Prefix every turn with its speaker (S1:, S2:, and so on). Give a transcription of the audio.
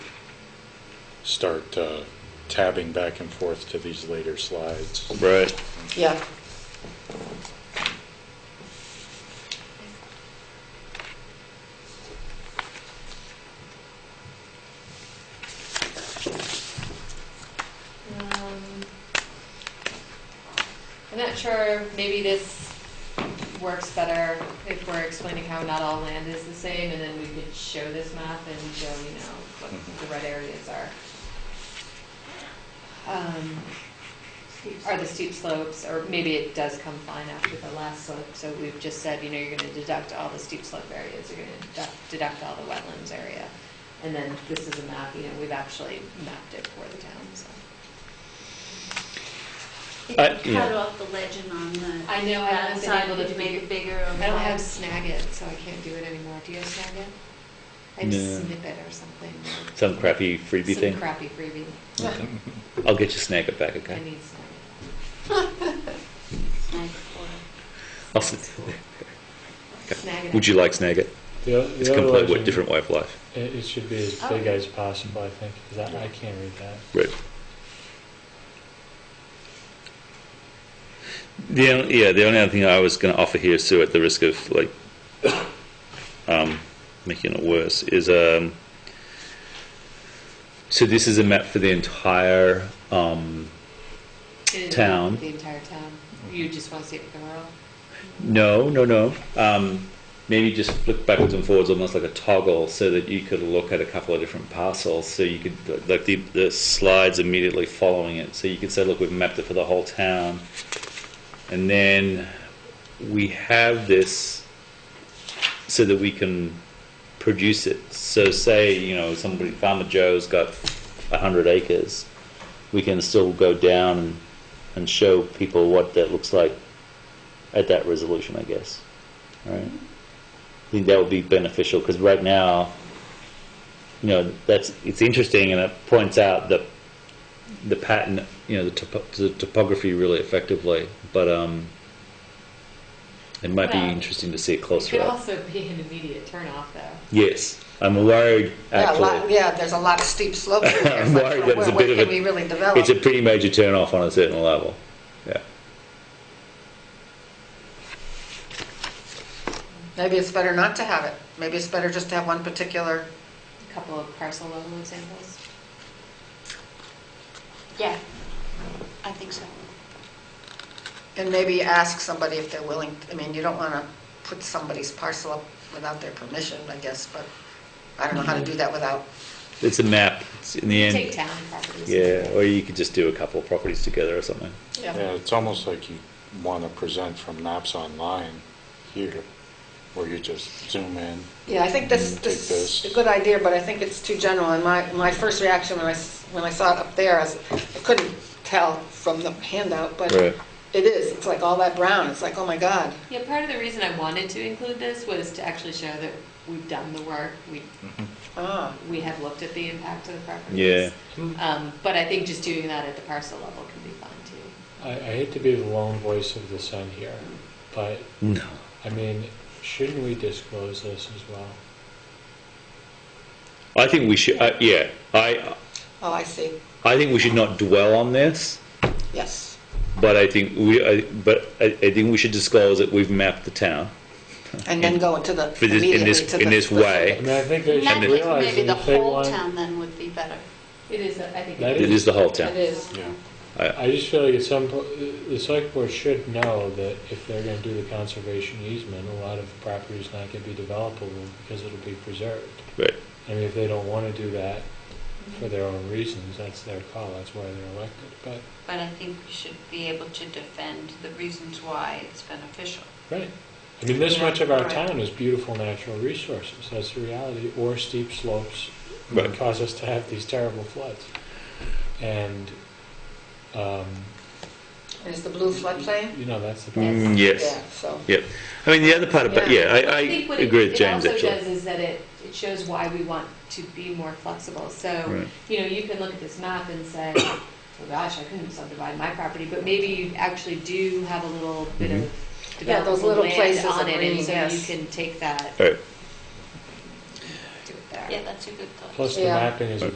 S1: start uh, tabbing back and forth to these later slides.
S2: Right.
S3: Yeah.
S4: Um, I'm not sure, maybe this works better if we're explaining how not all land is the same, and then we could show this map and show, you know, what the red areas are. Um, Are the steep slopes, or maybe it does come fine after the last slope, so we've just said, you know, you're gonna deduct all the steep slope areas, you're gonna deduct- deduct all the wetlands area. And then this is a map, you know, we've actually mapped it for the town, so.
S5: If
S2: I-
S5: you
S2: yeah.
S5: cut off the legend on the
S4: I know I haven't been
S5: outside,
S4: able
S5: would
S4: to
S5: you make
S4: figure.
S5: it bigger or
S4: I don't have
S5: more?
S4: Snagit, so I can't do it anymore. Do you have Snagit? I have
S2: No.
S4: Snippet or something.
S2: Some crappy freebie
S4: Some
S2: thing.
S4: crappy freebie.
S2: I'll get you snag it back,
S4: I
S2: okay?
S4: need Snagit.
S5: Snag for
S2: I'll s-
S4: Snagit.
S2: Would you like snag it?
S6: The o-
S2: It's
S6: the other
S2: complete with
S6: legend,
S2: different way of life.
S6: It, it should be as
S4: Oh.
S6: big as possible, I think, because I, I can't read that.
S2: Right. The only, yeah, the only other thing I was going to offer here, Sue, at the risk of like um, making it worse, is um, so this is a map for the entire. Um,
S4: It-
S2: town?
S4: The entire town. You just want to see it become rural?
S2: no, no, no. Um, maybe just flick backwards and forwards, almost like a toggle, so that you could look at a couple of different parcels. So you could like the, the slides immediately following it. So you could say, look, we've mapped it for the whole town. And then we have this so that we can produce it. So say, you know, somebody, Farmer Joe's got 100 acres. We can still go down and, and show people what that looks like at that resolution, I guess. Right? I think that would be beneficial because right now, you know, that's it's interesting and it points out the the pattern, you know, the, topo- the topography really effectively. But um, it might
S4: Well,
S2: be interesting to see it
S4: It
S2: closer
S4: could
S2: up.
S4: also be an immediate turnoff, though.
S2: Yes, I'm worried,
S3: Yeah, a lot-
S2: actually.
S3: Yeah, there's a lot of steep slopes. in there.
S2: I'm
S3: It's like,
S2: worried that it's a
S3: what-
S2: bit of
S3: What can
S2: a-
S3: we really
S2: It's a
S3: develop?
S2: pretty major turn-off on a certain level. Yeah.
S3: Maybe it's better not to have it. Maybe it's better just to have one particular,
S4: A couple of parcel level examples.
S5: Yeah, I think so.
S3: and maybe ask somebody if they're willing, I mean, you don't want to put somebody's parcel up without their permission, I guess, but I don't know how to do that without,
S2: It's a map, it's in the
S4: Take
S2: end.
S4: town properties.
S2: Yeah, or you could just do a couple of properties together or something.
S1: Yeah, it's almost like you want to present from maps online here, where you just zoom in.
S3: Yeah, I think this,
S1: Take
S3: this is
S1: this.
S3: a good idea, but I think it's too general. And my, my first reaction when I, s- when I saw it up there, I was- I couldn't tell from the handout, but
S2: Right.
S3: it is, it's like all that brown, it's like, oh my God.
S4: Yeah, part of the reason I wanted to include this was to actually show that we've done the work, we
S3: Ah,
S4: we have looked at the impact of the
S2: Yeah.
S4: properties. Um, But I think just doing that at the parcel level can be fun too.
S6: I, I hate to be the lone voice of dissent here, but
S2: No.
S6: I mean, shouldn't we disclose this as well?
S2: I think we should, uh, yeah, I,
S3: oh, I see,
S2: I think we should not dwell on this,
S3: yes.
S2: but I think we, I, but I, I think we should disclose that we've mapped the town.
S3: And then go into the,
S2: For this- Hmm. in
S3: immediately
S2: this-
S3: to the.
S2: in this
S3: specific.
S2: way.
S6: I mean, I think they
S5: And I
S6: should
S5: think
S6: realize
S5: maybe the
S6: that if they
S5: whole
S6: want.
S5: town then would be better.
S4: It is, a- I think.
S6: That
S2: It is the whole
S4: It
S2: town.
S4: is.
S1: Yeah.
S2: I,
S6: I just feel like at some po- the select board should know that if they're going to do the conservation easement, a lot of property is not going to be developable because it'll be preserved.
S2: right,
S6: I mean, if they don't want to do that for their own reasons, that's their call, that's why they're elected, but,
S5: But I think we should be able to defend the reasons why it's beneficial.
S6: right. I mean, this much of our
S5: Right.
S6: town is beautiful natural resources, that's the reality, or steep slopes
S2: Right.
S6: that cause us to have these terrible floods. And, um,
S3: And Is the blue floodplain?
S6: you know, that's the problem.
S2: Mm, yes,
S3: Yeah, so,
S2: yep. I mean, the other part about, yeah, I, I
S4: think what it-
S2: agree with James,
S4: It also
S2: actually.
S4: does is that it, it shows why we want to be more flexible. So,
S2: Right.
S4: you know, you can look at this map and say, oh gosh, I couldn't subdivide my property, but maybe you actually do have a little bit
S2: Mm-hmm.
S4: of
S3: Yeah, those
S4: developable
S3: little places
S4: land
S3: of
S4: on it,
S3: green,
S4: and so you
S3: yes.
S4: can take that,
S2: All right.
S4: do it there.
S5: Yeah, that's a good thought.
S6: Plus, the
S3: Yeah.
S6: mapping is